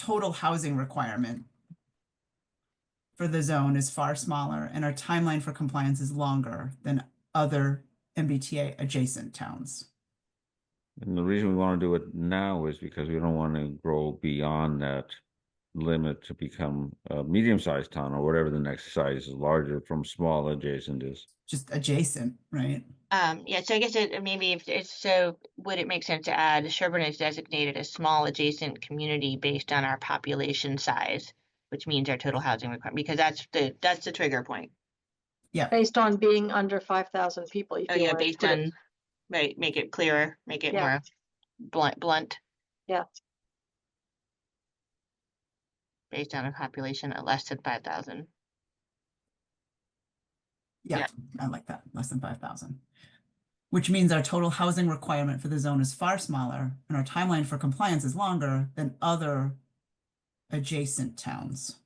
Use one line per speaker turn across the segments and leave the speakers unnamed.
total housing requirement for the zone is far smaller and our timeline for compliance is longer than other MBTA adjacent towns.
And the reason we want to do it now is because we don't want to grow beyond that limit to become a medium-sized town or whatever the next size is larger from small adjacent is.
Just adjacent, right?
Um, yeah, so I guess it maybe if it's so, would it make sense to add Sherburne is designated a small adjacent community based on our population size, which means our total housing requirement, because that's the that's the trigger point.
Based on being under five thousand people. if
Oh
you
yeah,
wanted to
based
put it-
on right, make it clearer, make it
Yeah.
more blunt blunt.
Yeah.
Based on a population of less than five thousand.
Yeah,
Yeah.
I like that, less than five thousand. Which means our total housing requirement for the zone is far smaller and our timeline for compliance is longer than other adjacent towns,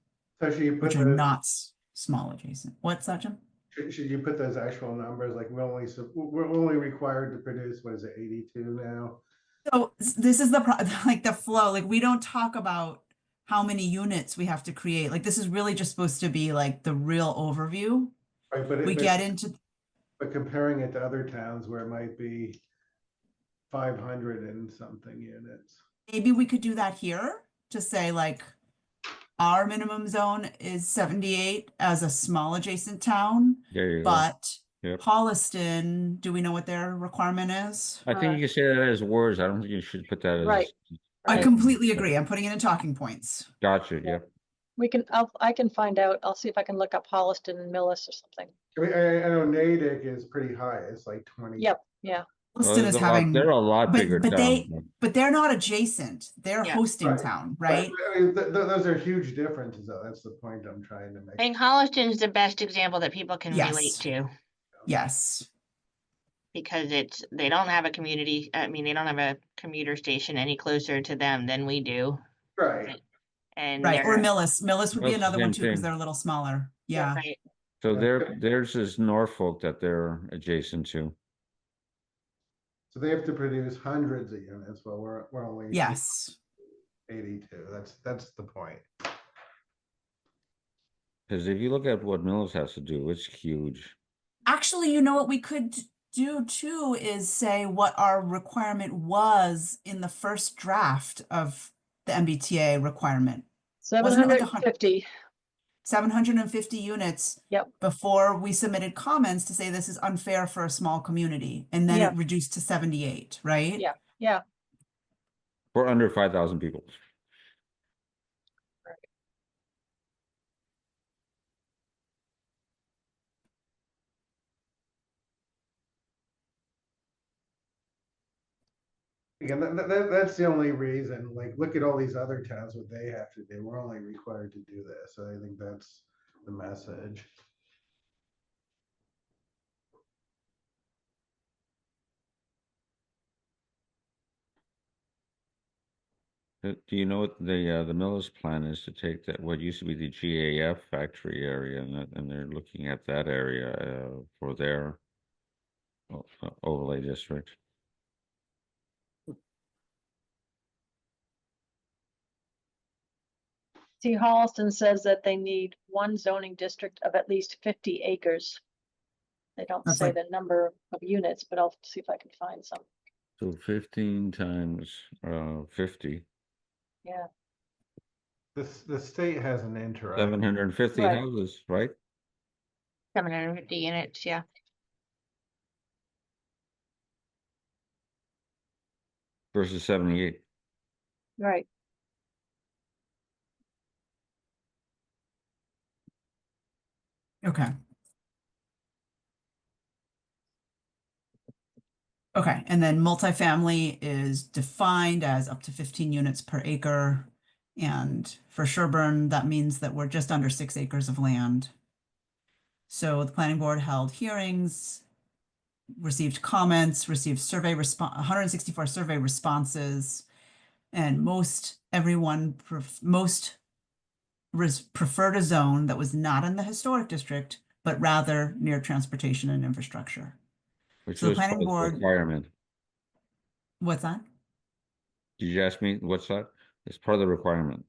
So should you put
which are
those,
not s- small adjacent. What's that, Jim?
should should you put those actual numbers, like we're only, sup- we're only required to produce, what is it, eighty-two now?
So s- this is the pro- like the flow, like we don't talk about how many units we have to create. Like this is really just supposed to be like the real overview.
Right, but. it-
We
but-
get into,
But comparing it to other towns where it might be five hundred and something units.
maybe we could do that here to say like our minimum zone is 78 as a small adjacent town,
There you go.
but
Yep.
Holliston, do we know what their requirement is?
I think you can say that as words. I don't think you should put that as.
Right.
I
Right.
completely agree. I'm putting it in talking points.
Gotcha, yep.
We can, I'll, I can find out. I'll see if I can look up Holliston and Millis or something.
I mean, I, I know Natick is pretty high, it's like twenty.
Yep, yeah.
Well,
Holliston
there's
is
a lot-
having,
They're a lot
but-
bigger
but they-
town.
but they're not adjacent. They're
Yeah.
hosting
Right.
town,
But-
right?
but I mean, th- th- those are huge differences, though, that's the point I'm trying to
I
make.
think Holliston's the best example that people can relate
Yes.
to
Yes.
because it's they don't have a community. I mean, they don't have a commuter station any closer to them than we do,
Right,
and
Right, or
they're-
Millis, Millis would be
That's the
another one
same
too, because
thing.
they're a little smaller,
Yeah.
yeah.
Right.
So
Yeah.
their, theirs is Norfolk that they're adjacent to.
so they have to produce hundreds of units, but we're, we're only.
Yes,
Eighty-two, that's, that's the point.
Because if you look at what Mills has to do, it's huge.
actually, you know what we could d- do too is say what our requirement was in the first draft of the MBTA requirement.
Seven
Wasn't it like
hundred
a
and
hun-
fifty.
Seven hundred and fifty units.
Yep.
Before we submitted comments to say this is unfair for a small community, and then
Yeah.
it reduced to seventy-eight, right?
Yeah. Yeah,
We're under five thousand people.
Again, that, that, that's the only reason, like, look at all these other towns, what they have to do, we're only required to do this, so I think that's the message.
Uh, Do you know what the, uh, the Mills plan is to take that, what used to be the GAF factory area and, that- and they're looking at that area, uh, for their o- o- overlay district?
see, Holliston says that they need one zoning district of at least fifty acres. They don't
That's
say
like-
the number of units, but I'll see if I can find some,
So fifteen times, uh, fifty,
yeah.
This, the state has an interest.
seven hundred and fifty
Right.
houses, right?
750 units, yeah.
Versus seventy-eight.
Right.
Okay. Okay, and then multifamily is defined as up to fifteen units per acre. And for Sherburne, that means that we're just under six acres of land. So the planning board held hearings, received comments, received survey response, one hundred and sixty-four survey responses. And most, everyone, pref- most res- preferred a zone that was not in the historic district, but rather near transportation and infrastructure.
which
So the
was
planning
part
board-
of the Requirement.
What's that?
Did you ask me what's that? It's part of the requirement.